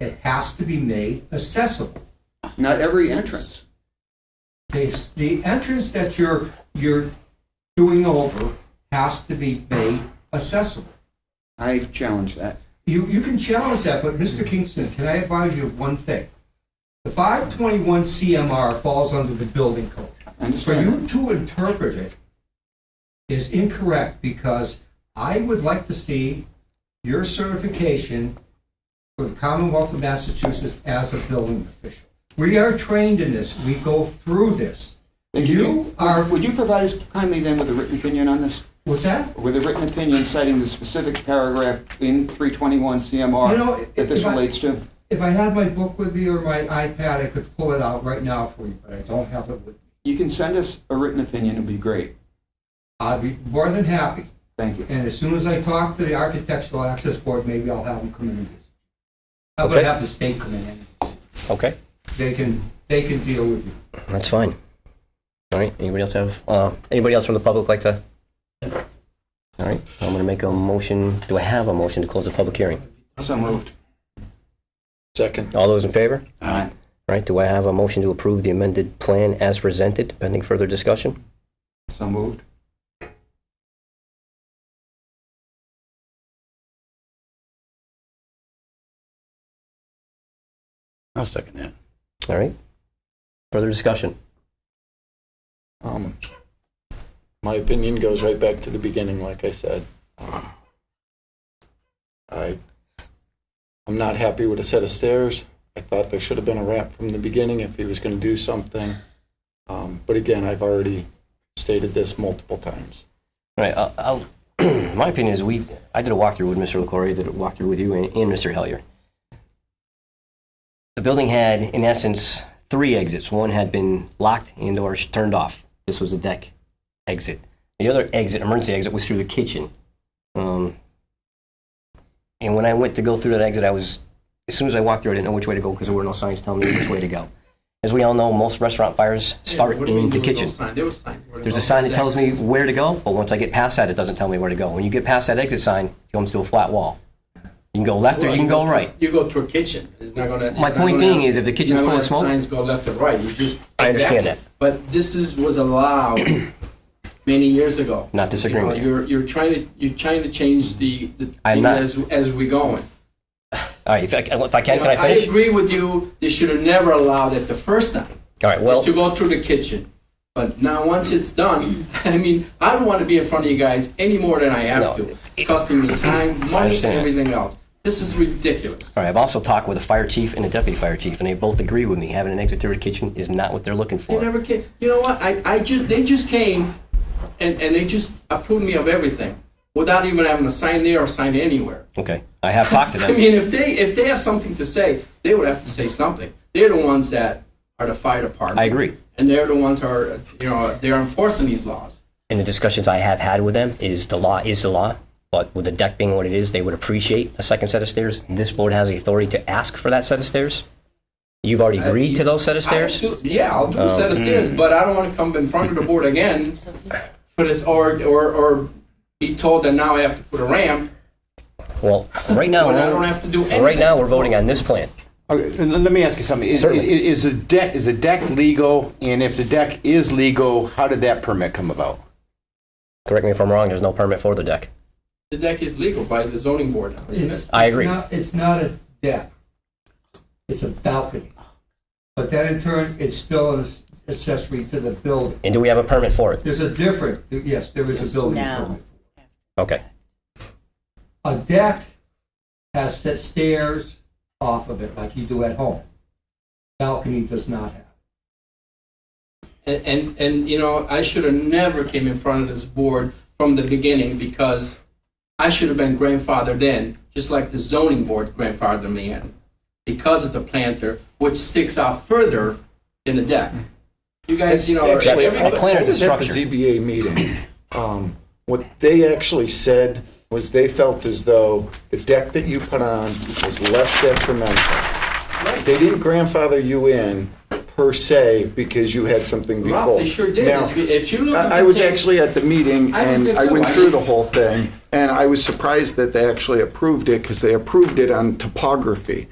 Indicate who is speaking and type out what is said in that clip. Speaker 1: It has to be made accessible.
Speaker 2: Not every entrance.
Speaker 1: They, the entrance that you're, you're doing over has to be made accessible.
Speaker 2: I challenge that.
Speaker 1: You, you can challenge that, but Mr. Kingston, can I advise you of one thing? The 521 CMR falls under the building code.
Speaker 2: I
Speaker 1: For
Speaker 2: Understand?
Speaker 1: you to interpret it is incorrect because I would like to see your certification for the Commonwealth of Massachusetts as a building official. We are trained in this. We go through this.
Speaker 2: Thank
Speaker 1: You are,
Speaker 2: Would you provide us kindly then with a written opinion on this?
Speaker 1: what's that?
Speaker 2: With a written opinion citing the specific paragraph in 321
Speaker 1: You know,
Speaker 2: CMR
Speaker 1: if-
Speaker 2: that this
Speaker 1: if I-
Speaker 2: relates to?
Speaker 1: If I had my book with me or my iPad, I could pull it out right now for you, but I don't have it with me.
Speaker 2: You can send us a written opinion, it'd be great.
Speaker 1: I'd be more than happy.
Speaker 2: Thank you.
Speaker 1: And as soon as I talk to the Architectural Access Board, maybe I'll have them come in and visit. I would
Speaker 3: Okay.
Speaker 1: have the state come in and
Speaker 3: Okay,
Speaker 1: they can, they can deal with you.
Speaker 3: that's fine. All right, anybody else have, uh, anybody else from the public like to? All right, I'm going to make a motion, do I have a motion to close the public hearing?
Speaker 2: So moved.
Speaker 4: Second.
Speaker 3: All those in favor?
Speaker 2: Aye.
Speaker 3: All right, do I have a motion to approve the amended plan as presented, pending further discussion?
Speaker 2: So moved.
Speaker 4: I'll second that.
Speaker 3: All right, further discussion?
Speaker 4: Um, my opinion goes right back to the beginning, like I said. I, I'm not happy with a set of stairs. I thought there should have been a ramp from the beginning if he was going to do something. Um, but again, I've already stated this multiple times.
Speaker 3: All right, I'll- I'll, my opinion is we, I did a walkthrough with Mr. LaCroix, did a walkthrough with you and and Mr. Hellier. The building had, in essence, three exits. One had been locked and or turned off. This was the deck exit. The other exit, emergency exit, was through the kitchen. Um, And when I went to go through that exit, I was, as soon as I walked through, I didn't know which way to go because there were no signs telling me which way to go. As we all know, most restaurant fires start
Speaker 5: What do you mean
Speaker 3: in the
Speaker 5: there was no
Speaker 3: kitchen.
Speaker 5: sign? There was signs. Where
Speaker 3: There's
Speaker 5: the
Speaker 3: a sign that
Speaker 5: exact-
Speaker 3: tells me where to go, but once I get past that, it doesn't tell me where to go. When you get past that exit sign, it comes to a flat wall. You can go left or you can go right.
Speaker 5: You go to a kitchen. It's not gonna.
Speaker 3: My
Speaker 5: it's not
Speaker 3: point
Speaker 5: gonna-
Speaker 3: being is if the kitchen's full
Speaker 5: not
Speaker 3: of
Speaker 5: gonna
Speaker 3: smoke-
Speaker 5: Signs go left and right. You just.
Speaker 3: I understand
Speaker 5: Exactly.
Speaker 3: that.
Speaker 5: But this is was allowed many years ago.
Speaker 3: Not disagreeing with you.
Speaker 5: You're you're trying to you're trying to change the the
Speaker 3: I'm
Speaker 5: thing
Speaker 3: not.
Speaker 5: as as we going.
Speaker 3: All right, if I, if I can,
Speaker 5: You
Speaker 3: can
Speaker 5: know,
Speaker 3: I finish?
Speaker 5: agree with you. They should have never allowed it the first time.
Speaker 3: All right,
Speaker 5: Well,
Speaker 3: well,
Speaker 5: to go through the kitchen. But now once it's done, I mean, I don't want to be in front of you guys any more than I have
Speaker 3: No.
Speaker 5: to. It's costing me time, money, and
Speaker 3: understand.
Speaker 5: everything else. This is ridiculous.
Speaker 3: all right, I've also talked with a fire chief and a deputy fire chief, and they both agree with me. Having an exit through the kitchen is not what they're looking
Speaker 5: They
Speaker 3: for.
Speaker 5: never came. You know what? I, I just they just came, and, and they just approved me of everything without even having to sign there or sign anywhere.
Speaker 3: Okay, I have talked to
Speaker 5: I
Speaker 3: them.
Speaker 5: mean, if they if they have something to say, they would have to say something. They're the ones that are the fire department.
Speaker 3: I agree.
Speaker 5: And they're the ones who are you know they're enforcing these laws.
Speaker 3: And the discussions I have had with them is the law is the law, but with the deck being what it is, they would appreciate a second set of stairs. This board has the authority to ask for that set of stairs. You've already agreed to those set of stairs?
Speaker 5: Absolutely. Yeah, I'll do a set of stairs, but I don't want to come in front of the board again for this, or, or, or be told that now I have to put a ramp
Speaker 3: Well, right now,
Speaker 5: when I don't have to do anything.
Speaker 3: right now, we're voting on this plan.
Speaker 6: Okay, and let me ask you something. Is,
Speaker 3: Certainly.
Speaker 6: is, is a deck is a deck legal? And if the deck is legal, how did that permit come about?
Speaker 3: Correct me if I'm wrong, there's no permit for the deck.
Speaker 5: The deck is legal by the zoning board now, isn't it?
Speaker 1: It's-
Speaker 3: I
Speaker 1: it's
Speaker 3: agree.
Speaker 1: not- It's not a deck. It's a balcony. But that in turn, it's still an accessory to the building.
Speaker 3: And do we have a permit for it?
Speaker 1: There's a different, yes, there is a building
Speaker 7: Now.
Speaker 1: permit.
Speaker 3: Okay.
Speaker 1: A deck has set stairs off of it like you do at home. Balcony does not have.
Speaker 5: And, and, and, you know, I should have never came in front of this board from the beginning because I should have been grandfathered in, just like the zoning board grandfathered me in, because of the planter, which sticks out further than the deck. You guys, you know. are-
Speaker 4: Actually,
Speaker 3: Yeah, the plan is a
Speaker 4: I was
Speaker 3: structure.
Speaker 4: At the ZBA meeting, um, what they actually said was they felt as though the deck that you put on was less detrimental. They didn't grandfather you in per se because you had something before.
Speaker 5: Ralph, they sure did.
Speaker 4: Now,
Speaker 5: If you- if you look at
Speaker 4: I, I
Speaker 5: the
Speaker 4: was
Speaker 5: tape-
Speaker 4: actually at the meeting
Speaker 5: I was
Speaker 4: and
Speaker 5: there
Speaker 4: I
Speaker 5: too.
Speaker 4: went
Speaker 5: I
Speaker 4: through
Speaker 5: did-
Speaker 4: the whole thing, and I was surprised that they actually approved it because they approved it on topography.